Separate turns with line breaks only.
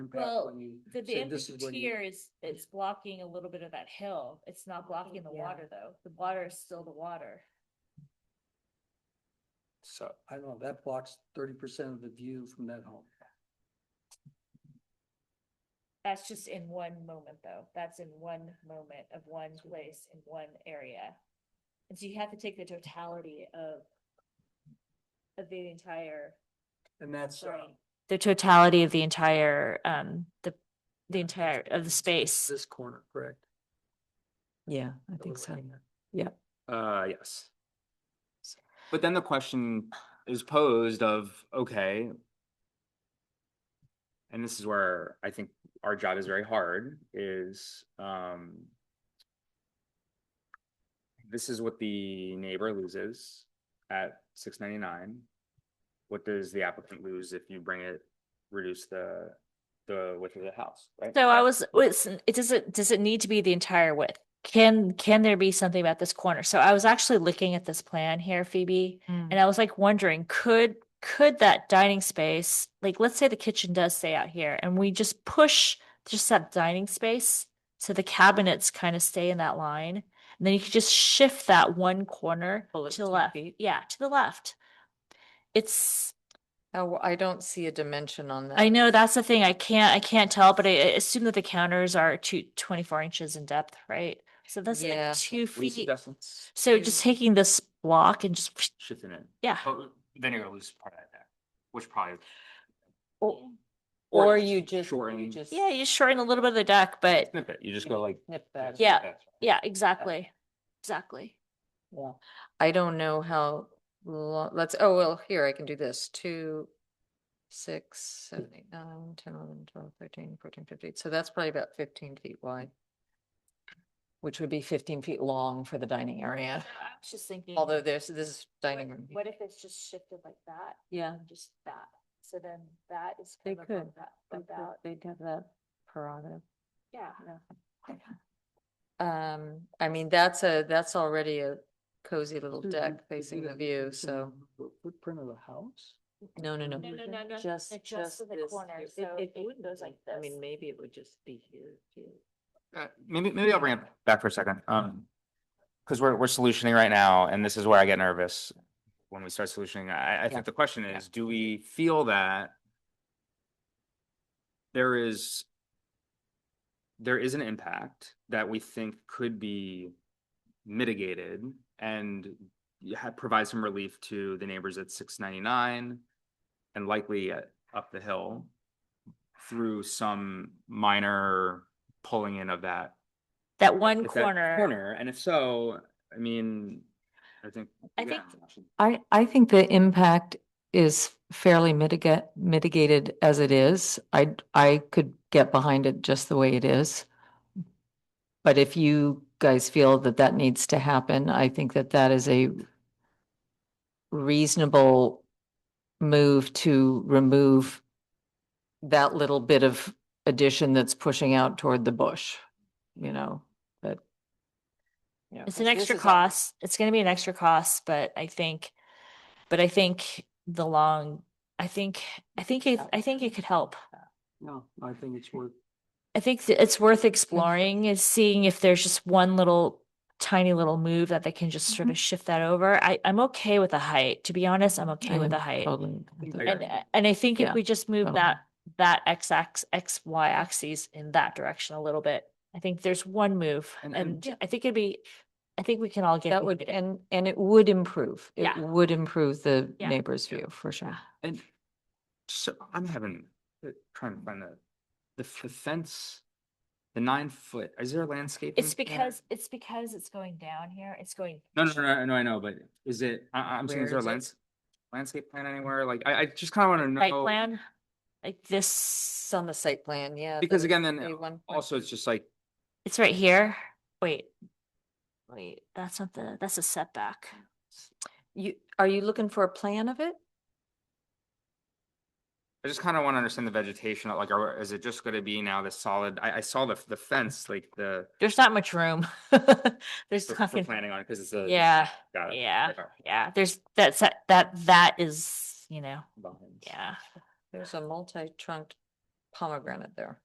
Well,
impact when you,
The, the
So this is when you-
intertier is, it's blocking a little bit of that hill. It's not blocking the
yeah.
water though. The water is still the water.
so, I don't know, that blocks thirty percent of the view from that home.
That's just in one moment though. That's in one moment of one place in one area. And so you have to take the totality of of the entire,
And that's, uh,
sorry, the totality of the entire, um, the, the entire, of the space.
this corner, correct?
Yeah, I
that
think
we're
so.
looking at.
Uh, yes. But then the question is posed of, okay. And this is where I think our job is very hard is, um. This is what the neighbor loses at six ninety-nine. What does the applicant lose if you bring it, reduce the, the width of the house, right?
So I was, was, it doesn't, does it need to be the entire width? Can, can there be something about this corner? So I was actually looking at this plan here, Phoebe. And I was like wondering, could, could that dining space, like, let's say the kitchen does stay out here and we just push just that dining space. So the cabinets kind of stay in that line. And then you could just shift that one corner
Pull it
to the
two
left.
feet.
Yeah, to the left. It's,
Oh, I don't see a dimension on that.
I know that's the thing. I can't, I can't tell, but I I assume that the counters are two, 24 inches in depth, right? So that's
Yeah.
like two
What do you
feet.
suggest?
So just taking this block and just,
Shifting it.
yeah.
But Oh, then you're gonna lose part of that there, which probably.
O- Or you just, you
shorten-
just.
Yeah, you shorten a little bit of the deck, but
Snip it, you just
Yeah.
go like.
Snip that.
Yeah. yeah, exactly. Exactly.
Yeah. I don't know how long, let's, oh, well, here, I can do this, two, six, seven, eight, nine, ten, eleven, twelve, thirteen, fourteen, fifteen, so that's probably about fifteen feet wide. Which would be fifteen feet long for the dining area,
I was just thinking.
although there's, this is dining room.
What if it's just shifted like that,
Yeah,
just that? So then that is
They
kind of what
could.
that,
they
what
could-
that,
they'd have that prerogative.
yeah.
Um, I mean, that's a, that's already a cozy little
Mm-hmm.
Dude, you
deck
could do
facing the
that
view,
within
so,
the Footprint of the house?
no, no, no.
No, no, no, no,
Just,
no,
just
just in the
this
corner,
here. It-
so
it
it
wouldn't
goes
be-
like
I mean,
this.
maybe it would just be here, here.
Uh, maybe, maybe I'll bring it back for a second, um, because we're, we're solutioning right now, and this is where I get nervous. When we start solutioning, I, I think the question is, do we feel that? There is. There is an impact that we think could be mitigated and you ha- provide some relief to the neighbors at six ninety-nine. And likely at, up the hill. Through some minor pulling in of that
That one
if that
corner,
Corner, and if so, I mean, I think.
I
yeah,
think-
I, I think the impact is fairly mitigate, mitigated as it is. I, I could get behind it just the way it is. But if you guys feel that that needs to happen, I think that that is a reasonable move to remove that little bit of addition that's pushing out toward the bush, you know, but. yeah,
it's an extra cost. It's gonna be an extra cost, but I think, but I think the long, I think, I think, it- I think it could help.
No, I think it's worth,
I think that it's worth exploring is seeing if there's just one little tiny little move that they can just sort of shift that over. I, I'm okay with the height. To be honest, I'm okay with the height.
Totally.
I
And,
agree.
I- and I think
Yeah,
if we just move
totally.
that, that X axis, X, Y axes in that direction a little bit, I think there's one move
And-
and
and-
I think it'd be, I think we can all get.
That would, and, and it would improve, it
Yeah.
would improve the
Yeah.
neighbor's view, for sure.
And so I'm having, uh, trying to find the, the f- the fence, the nine foot, is there landscaping?
It's
there?
because, it's because it's going down here. It's going.
No, no, no, no, I know, I know, but is it, I, I'm saying,
Where
is there a
is it?
lands, landscape plan anywhere? Like, I, I just kind of want to
Site
know.
plan, like this,
It's on the site plan, yeah.
Because
the-
again, then
the one point-
Also, it's just like,
it's right here. Wait. Wait, that's not the, that's a setback.
You, are you looking for a plan of it?
I just kind of want to understand the vegetation, like, are, is it just going to be now the solid, I, I saw the, the fence, like the,
There's not much room. There's
for
not
for
gonna-
planning on it, because it's a.
Yeah,
Got it.
yeah.
Okay.
yeah, there's that's that, that, that is, you know,
Vines.
yeah.
There's a multi-trunked pomegranate there.